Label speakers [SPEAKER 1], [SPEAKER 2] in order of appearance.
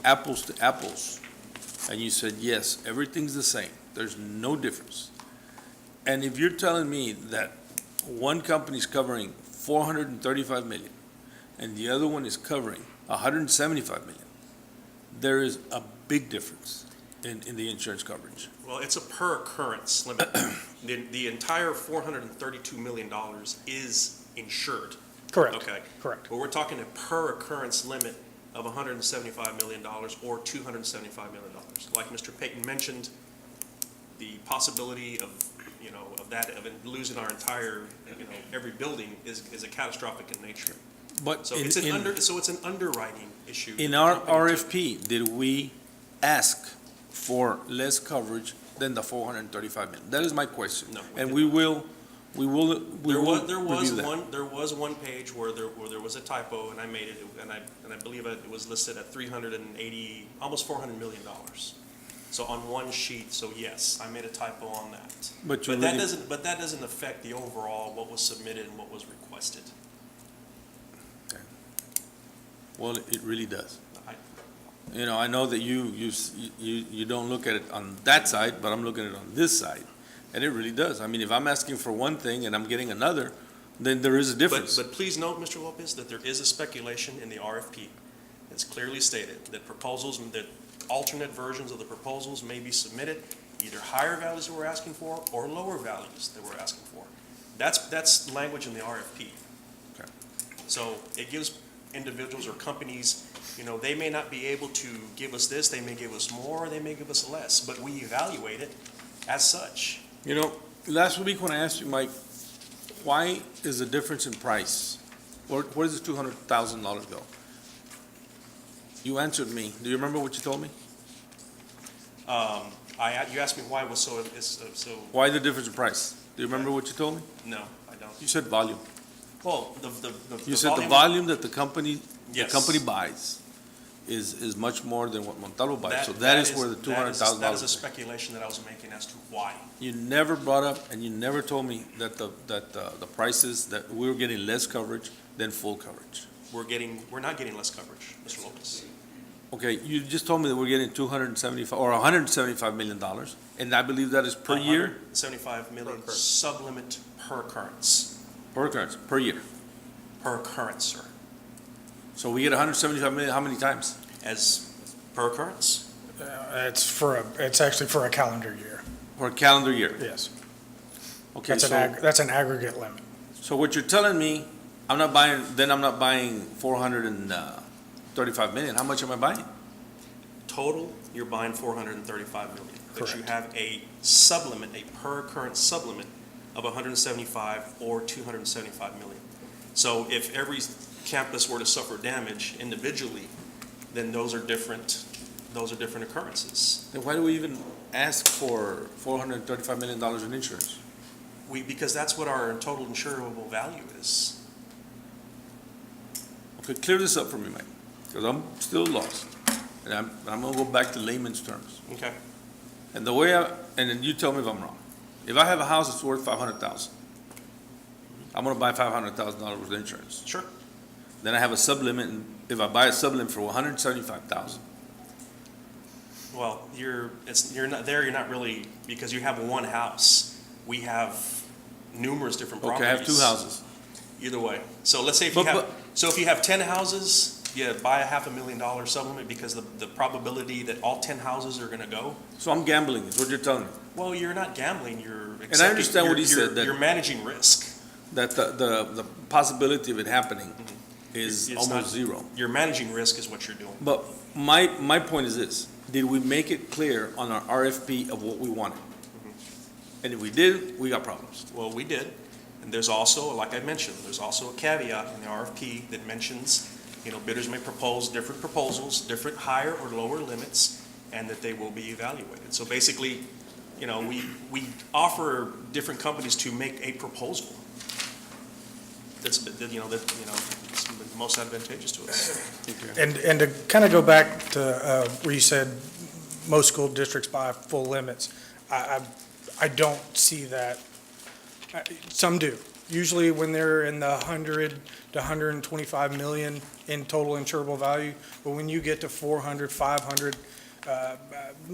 [SPEAKER 1] apples to apples, and you said, yes, everything's the same, there's no difference. And if you're telling me that one company's covering four hundred and thirty-five million, and the other one is covering hundred and seventy-five million, there is a big difference in, in the insurance coverage.
[SPEAKER 2] Well, it's a per occurrence limit. The, the entire four hundred and thirty-two million dollars is insured,
[SPEAKER 3] Correct,
[SPEAKER 2] okay?
[SPEAKER 3] correct.
[SPEAKER 2] But we're talking a per occurrence limit of hundred and seventy-five million dollars or two hundred and seventy-five million dollars. Like Mr. Payton mentioned, the possibility of, you know, of that, of losing our entire, you know, every building is, is a catastrophic in nature.
[SPEAKER 1] But
[SPEAKER 2] So
[SPEAKER 1] in-
[SPEAKER 2] it's an
[SPEAKER 1] in-
[SPEAKER 2] under, so it's an underwriting issue.
[SPEAKER 1] In our
[SPEAKER 2] that the company took.
[SPEAKER 1] RFP, did we ask for less coverage than the four hundred and thirty-five million? That is my question.
[SPEAKER 2] No, we
[SPEAKER 1] And
[SPEAKER 2] did
[SPEAKER 1] we will, we will, we
[SPEAKER 2] There
[SPEAKER 1] will
[SPEAKER 2] was, there was
[SPEAKER 1] review that.
[SPEAKER 2] one, there was one page where there, where there was a typo, and I made it, and I, and I believe it was listed at three hundred and eighty, almost four hundred million dollars. So on one sheet, so yes, I made a typo on that.
[SPEAKER 1] But you
[SPEAKER 2] But that
[SPEAKER 1] really,
[SPEAKER 2] doesn't, but that doesn't affect the overall, what was submitted and what was requested.
[SPEAKER 1] well, it really does.
[SPEAKER 2] I-
[SPEAKER 1] You know, I know that you, you, s- you, you don't look at it on that side, but I'm looking at it on this side. And it really does. I mean, if I'm asking for one thing and I'm getting another, then there is a
[SPEAKER 2] But,
[SPEAKER 1] difference.
[SPEAKER 2] but please note, Mr. Lopez, that there is a speculation in the RFP. It's clearly stated that proposals, that alternate versions of the proposals may be submitted, either higher values that we're asking for or lower values that we're asking for. That's, that's language in the RFP.
[SPEAKER 1] Okay.
[SPEAKER 2] So it gives individuals or companies, you know, they may not be able to give us this, they may give us more, they may give us less, but we evaluate it as such.
[SPEAKER 1] You know, last week when I asked you, Mike, why is the difference in price? Where, where does this two hundred thousand dollars go? You answered me. Do you remember what you told me?
[SPEAKER 2] Um, I, you asked me why it was so, is- so,
[SPEAKER 1] Why the difference in price? Do you remember what you told me?
[SPEAKER 2] no, I don't.
[SPEAKER 1] You said volume.
[SPEAKER 2] Well, the, the, the.
[SPEAKER 1] You said the
[SPEAKER 2] volume-
[SPEAKER 1] volume that the company, the
[SPEAKER 2] Yes.
[SPEAKER 1] company buys is, is much more than what Montalvo buys.
[SPEAKER 2] That-
[SPEAKER 1] So that is where the two hundred thousand
[SPEAKER 2] That is a
[SPEAKER 1] dollars.
[SPEAKER 2] speculation that I was making as to why.
[SPEAKER 1] You never brought up and you never told me that the, that uh, the, the prices, that we were getting less coverage than full coverage.
[SPEAKER 2] We're getting, we're not getting less coverage, Mr. Lopez.
[SPEAKER 1] Okay, you just told me that we're getting two hundred and seventy-five, or hundred and seventy-five million dollars, and I believe that is per
[SPEAKER 3] Uh-huh.
[SPEAKER 1] year,
[SPEAKER 2] 175 million
[SPEAKER 3] occurrence.
[SPEAKER 2] sublimit per occurrence,
[SPEAKER 1] per occurrence, per year.
[SPEAKER 2] per occurrence, sir.
[SPEAKER 1] So we get hundred and seventy-five million, how many times?
[SPEAKER 2] As, per occurrence?
[SPEAKER 3] Uh, It's for, a. it's actually for a calendar year,
[SPEAKER 1] Per calendar year?
[SPEAKER 3] yes.
[SPEAKER 1] Okay,
[SPEAKER 3] That's an,
[SPEAKER 1] so,
[SPEAKER 3] ag- that's an aggregate limit.
[SPEAKER 1] so what you're telling me, I'm not buying, then I'm not buying four hundred and uh, thirty-five million, how much am I buying?
[SPEAKER 2] Total, you're buying 435 million. But you
[SPEAKER 3] Correct.
[SPEAKER 2] have a sublimit, a per occurrence sublimit of 175 or 275 million. So if every campus were to suffer damage individually, then those are different, those are different occurrences.
[SPEAKER 1] Then why do we even ask for four hundred and thirty-five million dollars in insurance?
[SPEAKER 2] We, because that's what our total insurable value is.
[SPEAKER 1] Okay, clear this up for me, Mike, because I'm still lost, and I'm, I'm gonna go back to layman's terms.
[SPEAKER 2] Okay.
[SPEAKER 1] And the way I, and then you tell me if I'm wrong. If I have a house that's worth five hundred thousand, I'm gonna buy five hundred thousand dollars worth of insurance.
[SPEAKER 2] Sure.
[SPEAKER 1] Then I have a sublimit, and if I buy a sublimit for one hundred seventy-five thousand,
[SPEAKER 2] Well, you're, it's, you're not, there, you're not really, because you have one house. We have numerous different
[SPEAKER 1] okay,
[SPEAKER 2] properties.
[SPEAKER 1] I have two houses.
[SPEAKER 2] Either way. So let's say if you
[SPEAKER 1] But-
[SPEAKER 2] have, so if you have ten houses, you buy a half a million dollar supplement because the, the probability that all ten houses are gonna go,
[SPEAKER 1] So I'm gambling, is what you're telling me.
[SPEAKER 2] well, you're not gambling, you're accepting.
[SPEAKER 1] understand what
[SPEAKER 2] you're-
[SPEAKER 1] he
[SPEAKER 2] you're-
[SPEAKER 1] said, that-
[SPEAKER 2] You're managing risk.
[SPEAKER 1] That the, the, the possibility of it happening is
[SPEAKER 2] Mm-hmm. It's not-
[SPEAKER 1] almost zero.
[SPEAKER 2] You're managing risk is what you're doing.
[SPEAKER 1] But my, my point is this, did we make it clear on our RFP of what we wanted?
[SPEAKER 2] Mm-hmm.
[SPEAKER 1] And if we did, we got problems.
[SPEAKER 2] Well, we did, and there's also, like I mentioned, there's also a caveat in the RFP that mentions, you know, bidders may propose different proposals, different higher or lower limits, and that they will be evaluated. So basically, you know, we, we offer different companies to make a proposal that's, that, you know, that, you know, is the most advantageous to us.
[SPEAKER 3] And, and to kind of go back to uh, where you said most school districts buy full limits, I, I, I don't see that. I- Some do, usually when they're in the 100 to 125 million in total insurable value, but when you get to 400, 500, uh,